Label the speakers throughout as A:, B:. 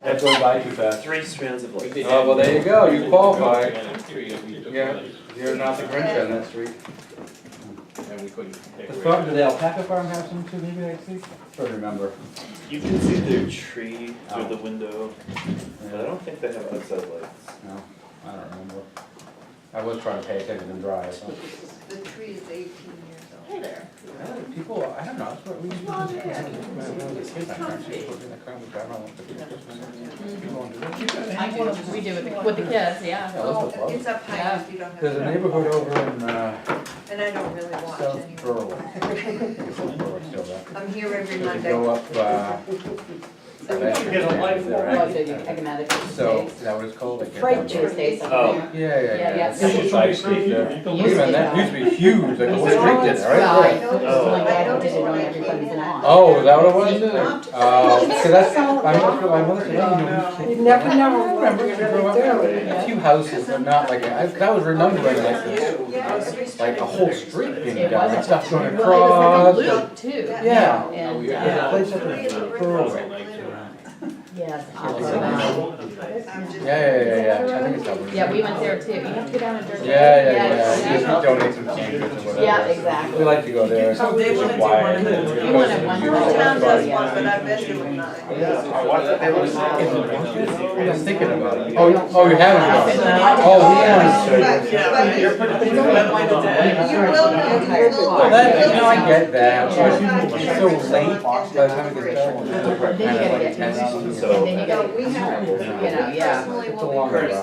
A: That drove by too fast.
B: Uh, Three strands of light. Uh,
A: Oh, well, there you go, you qualify. Yeah.
C: Yeah.
A: You're not the Grinch on that street.
C: And we couldn't take
A: The
C: away.
A: farm, did the alpaca farm have some too, maybe I see? Trying to remember.
B: You can see their tree through
A: Oh.
B: the window, but I
A: No,
B: don't think they have outside lights.
A: I don't remember. I was trying to pay attention and drive, so.
D: The tree is eighteen years old. Hey there.
A: People, I don't know, that's what we.
D: Well, yeah, it's- it's comfy.
E: I do, we do with the, with the kids, yeah.
D: Well, it's up high,
E: Yeah.
D: if you don't have.
A: There's a neighborhood over in, uh,
D: And I don't really watch
A: South
D: anyway.
A: Berwick. It's South Berwick still there.
D: I'm here every
A: Does it
D: Monday.
A: go up, uh? Sylvester
C: Get a life
A: Stand, is that
E: Oh,
A: right?
E: the economic
A: So,
E: days.
A: is that what it's called? I can't
E: Freight
A: remember.
E: Tuesdays up
B: Oh.
E: there.
A: Yeah, yeah,
E: Yeah,
A: yeah.
E: yeah.
A: It's a side street there.
E: It
A: Wait a
E: used to
A: minute,
E: be
A: that used
E: that.
A: to be huge, like a whole street did, right?
E: It's right. It's
B: Oh.
E: like that, because they
D: Oh.
E: don't everybody's in line.
A: Oh, is that what it was? Oh, cause that's, I remember, my mother said,
D: Oh,
A: "Oh,
D: no.
A: you
F: You never know.
A: I remember you grow up there, a few houses, but not like, I, 'cause I was remembering like this,
D: Yeah, every street.
A: like a whole street being
E: It
A: done,
E: wasn't.
A: and stuff going
E: Well, it
A: across.
E: was like a loop too.
A: Yeah.
C: Oh,
E: And,
C: yeah.
E: uh,
A: Place up
D: Three
A: in
D: is a brick
A: Berwick.
D: house with glitter on it.
E: yes,
A: Oh, Yeah,
E: Aquabah.
D: I'm just-
A: yeah, yeah, yeah, yeah, I think it's that one.
E: Yeah, we went there too. You have to go down and dirt.
A: Yeah, yeah, yeah,
E: Yeah,
A: just donate some sandwiches or whatever.
E: Yeah, exactly.
A: We like to go there.
F: So they wanna do one of those.
A: It's
E: You wanna one-
D: Your town does
A: expensive.
E: Yeah.
D: one, but I bet you will not.
A: I was thinking about it. Oh, oh, you haven't gone? Oh, yeah.
D: But- but-
C: You're putting things in that light of day.
D: You will, know, you will.
A: Well, that, you know, I get that,
E: Yeah.
A: but it's so late by the time it gets dark.
E: Then you gotta get
B: So-
E: And then you
D: No,
E: gotta,
D: we have,
E: you know, yeah.
D: personally,
A: It's a
D: we'll
A: long
D: be.
A: road.
E: Yeah.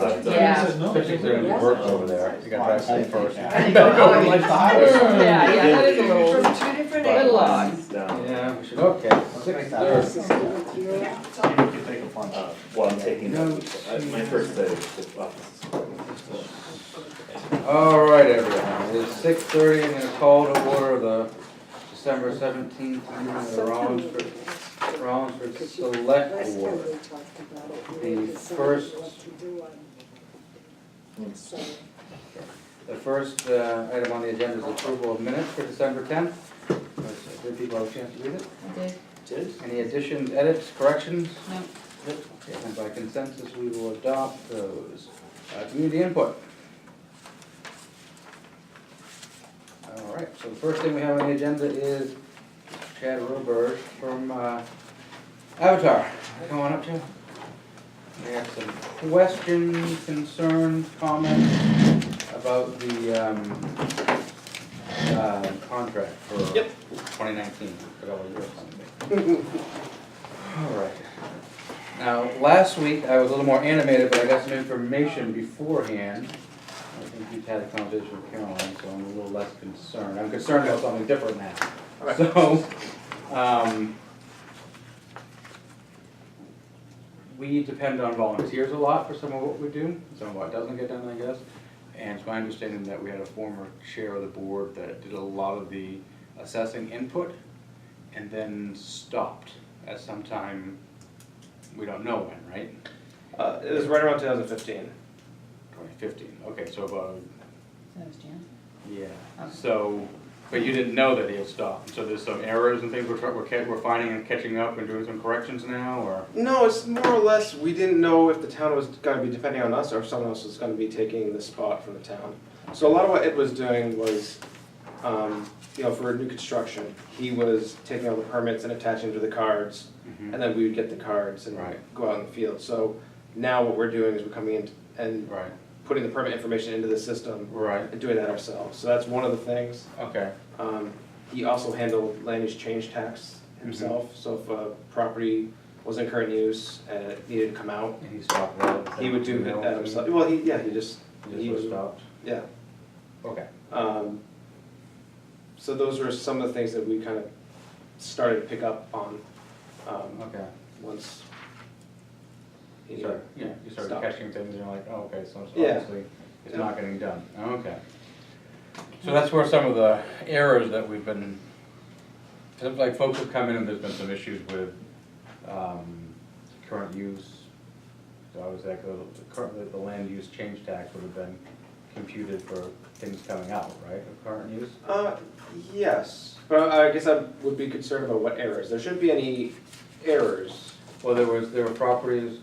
A: Especially if they're gonna work over there, you gotta drive home first.
E: Yeah,
A: Yeah,
E: yeah, that is a little,
D: From two different
E: little
D: angles.
E: odd.
B: Down,
A: we should, okay, six thirty.
B: uh, while I'm taking, uh, my first day of office.
A: All right, everyone, it is six thirty and it's called to order the December seventeenth, meeting of the Rollinsford, Rollinsford Select Board. The first, the first uh, item on the agenda is approval of minutes for December tenth. Did people have a chance to read it?
E: Did-
B: Did?
A: Any additions, edits, corrections?
E: No.
A: Okay, And by consensus, we will adopt those. Uh, Community input. All right, so the first thing we have on the agenda is Chad Roberge from uh, Avatar. Come on up, Chad. We have some questions, concerns, comments about the um, uh, contract for
B: Yep.
A: 2019. Forgot what year it's gonna be. All right. Now, last week, I was a little more animated, but I got some information beforehand. I think you've had a conversation with Caroline, so I'm a little less concerned. I'm concerned about something different now. So, um, we depend on volunteers a lot for some of what we do, some of what doesn't get done, I guess. And it's my understanding that we had a former chair of the board that did a lot of the assessing input and then stopped at some time, we don't know when, right?
G: Uh, it was right around 2015.
A: Twenty fifteen, okay, so about,
E: That was Jan.
A: yeah, so, but you didn't know that he had stopped, so there's some errors and things we're, try- we're, ca- we're finding and catching up and doing some corrections now, or?
G: No, it's more or less we didn't know if the town was going to be depending on us or if someone else was going to be taking the spot from the town. So a lot of what Ed was doing was, um, you know, for new construction, he was taking all the permits and attaching to the cards,
A: Mhm.
G: and then we would get the cards and
A: Right.
G: go out in the field. So now what we're doing is we're coming in and
A: Mm-hmm. Right,
G: putting the permit information into the system
A: right,
G: and doing that ourselves. So that's one of the things.
A: okay,
G: Um, he also handled land use change tax himself, so if a property was in current use and it needed to come out,
A: and he stopped that.
G: he would do
A: that
G: that himself, well, he, yeah, he just,
A: Just
G: he
A: sort of
G: was,
A: stopped,
G: yeah.
A: okay,
G: Um, so those were some of the things that we kind of started to pick up on, um,
A: okay.
G: once. he-
A: You started, yeah, you started
G: Stopped.
A: catching things and you're like, oh, okay, so it's
G: Yeah.
A: obviously, it's not getting done, okay. So that's where some of the errors that we've been, it's like folks have come in and there's been some issues with, um, current use. So I was like, the, the current, the land use change tax would have been computed for things coming out, right, of current use?
G: Uh, yes, but I I guess I would be concerned about what errors, there shouldn't be any errors.
A: Well, there was, there were properties